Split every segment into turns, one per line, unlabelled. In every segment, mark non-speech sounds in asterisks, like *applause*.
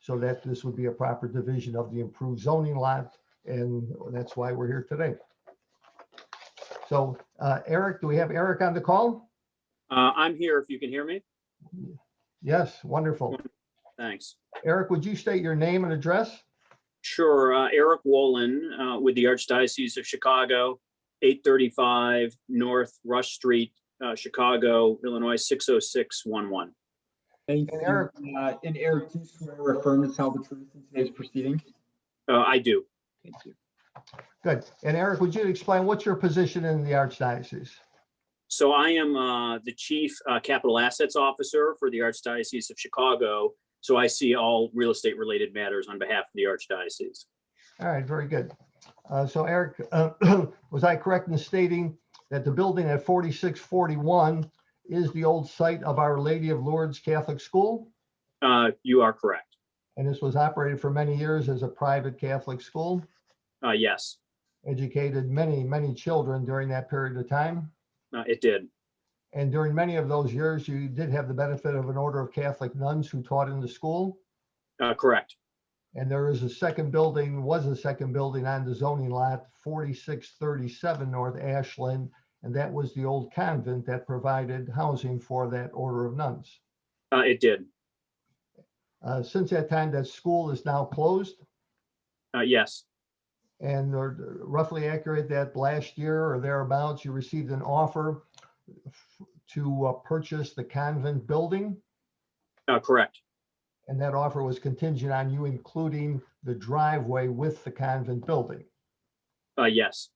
so that this would be a proper division of the improved zoning lot, and that's why we're here today. So uh, Eric, do we have Eric on the call?
Uh, I'm here if you can hear me.
Yes, wonderful.
Thanks.
Eric, would you state your name and address?
Sure. Uh, Eric Wolin uh, with the Archdiocese of Chicago, 835 North Rush Street, uh, Chicago, Illinois, 60611.
Thank
And
you.
Eric-
Uh, And Eric, do you swear or affirm to tell the truth in today's proceeding?
Uh, I do.
Thank you.
Good. And Eric, would you explain what's your position in the Archdiocese?
So I am uh, the Chief uh, Capital Assets Officer for the Archdiocese of Chicago. So I see all real estate related matters on behalf of the Archdiocese.
All right, very good. Uh, So Eric, uh, *clears throat* was I correct in stating that the building at 4641 is the old site of Our Lady of Lourdes Catholic School?
Uh, you are correct.
And this was operated for many years as a private Catholic school,
Uh, yes,
educated many, many children during that period of time.
uh, it did.
And during many of those years, you did have the benefit of an order of Catholic nuns who taught in the school.
Uh, correct.
And there is a second building, was a second building on the zoning lot, 4637 North Ashland. And that was the old convent that provided housing for that order of nuns.
Uh, it did.
Uh, Since that time, that school is now closed.
Uh, yes,
And they're roughly accurate that last year or thereabouts, you received an offer f- to uh, purchase the convent building.
uh, correct.
And that offer was contingent on you including the driveway with the convent building.
Uh, yes,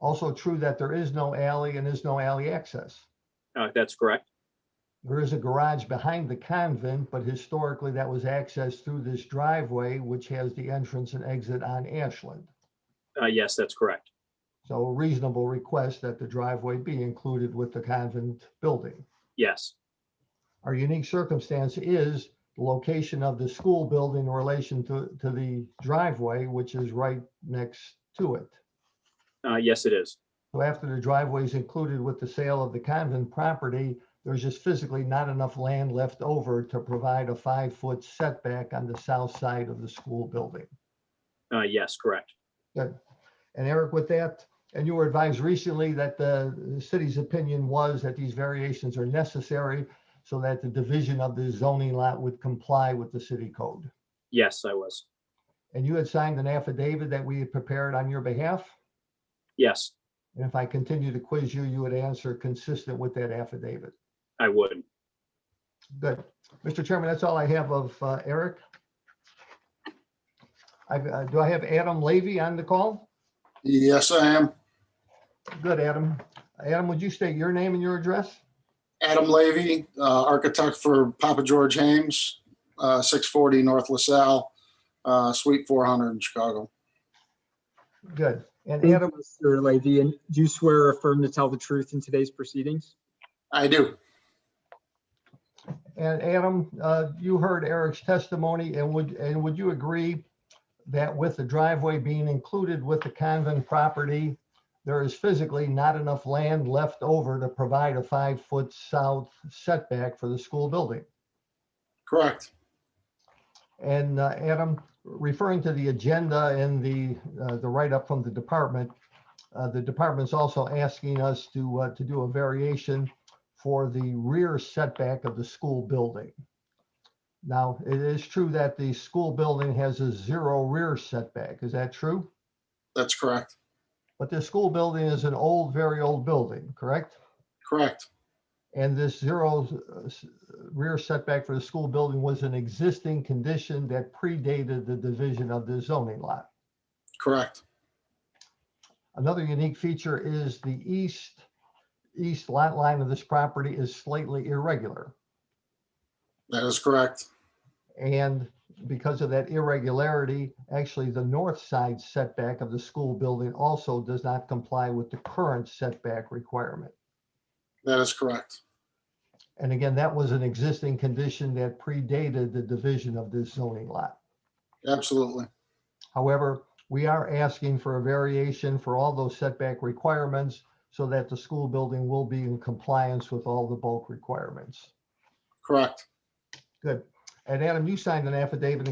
Also true that there is no alley and is no alley access.
uh, that's correct.
There is a garage behind the convent, but historically that was accessed through this driveway, which has the entrance and exit on Ashland.
Uh, yes, that's correct.
So a reasonable request that the driveway be included with the convent building.
Yes,
Our unique circumstance is the location of the school building in relation to, to the driveway, which is right next to it.
uh, yes, it is.
So after the driveway is included with the sale of the convent property, there's just physically not enough land left over to provide a five-foot setback on the south side of the school building.
Uh, yes, correct.
And Eric, with that, and you were advised recently that the city's opinion was that these variations are necessary so that the division of the zoning lot would comply with the city code.
Yes, I was.
And you had signed an affidavit that we had prepared on your behalf.
Yes,
And if I continue to quiz you, you would answer consistent with that affidavit.
I would.
Good. Mr. Chairman, that's all I have of uh, Eric. I've, uh, Do I have Adam Levy on the call?
Yes, I am.
Good, Adam. Adam, would you state your name and your address?
Adam Levy, uh, architect for Papa George Hames, uh, 640 North LaSalle, uh, Suite 400 in Chicago.
Good. And
Thank
Adam,
you, Mr. Leahy. And do you swear or affirm to tell the truth in today's proceedings?
I do.
and Adam, uh, you heard Eric's testimony and would, and would you agree that with the driveway being included with the convent property, there is physically not enough land left over to provide a five-foot south setback for the school building?
Correct.
And uh, Adam, referring to the agenda and the, uh, the write-up from the department, uh, the department's also asking us to, uh, to do a variation for the rear setback of the school building. Now, it is true that the school building has a zero rear setback. Is that true?
That's correct.
But the school building is an old, very old building, correct?
Correct.
And this zero uh, s- rear setback for the school building was an existing condition that predated the division of the zoning lot.
Correct.
Another unique feature is the east, east lot line of this property is slightly irregular.
That is correct.
And because of that irregularity, actually the north side setback of the school building also does not comply with the current setback requirement.
That is correct.
And again, that was an existing condition that predated the division of this zoning lot.
Absolutely.
However, we are asking for a variation for all those setback requirements so that the school building will be in compliance with all the bulk requirements.
Correct.
Good. And Adam, you signed an affidavit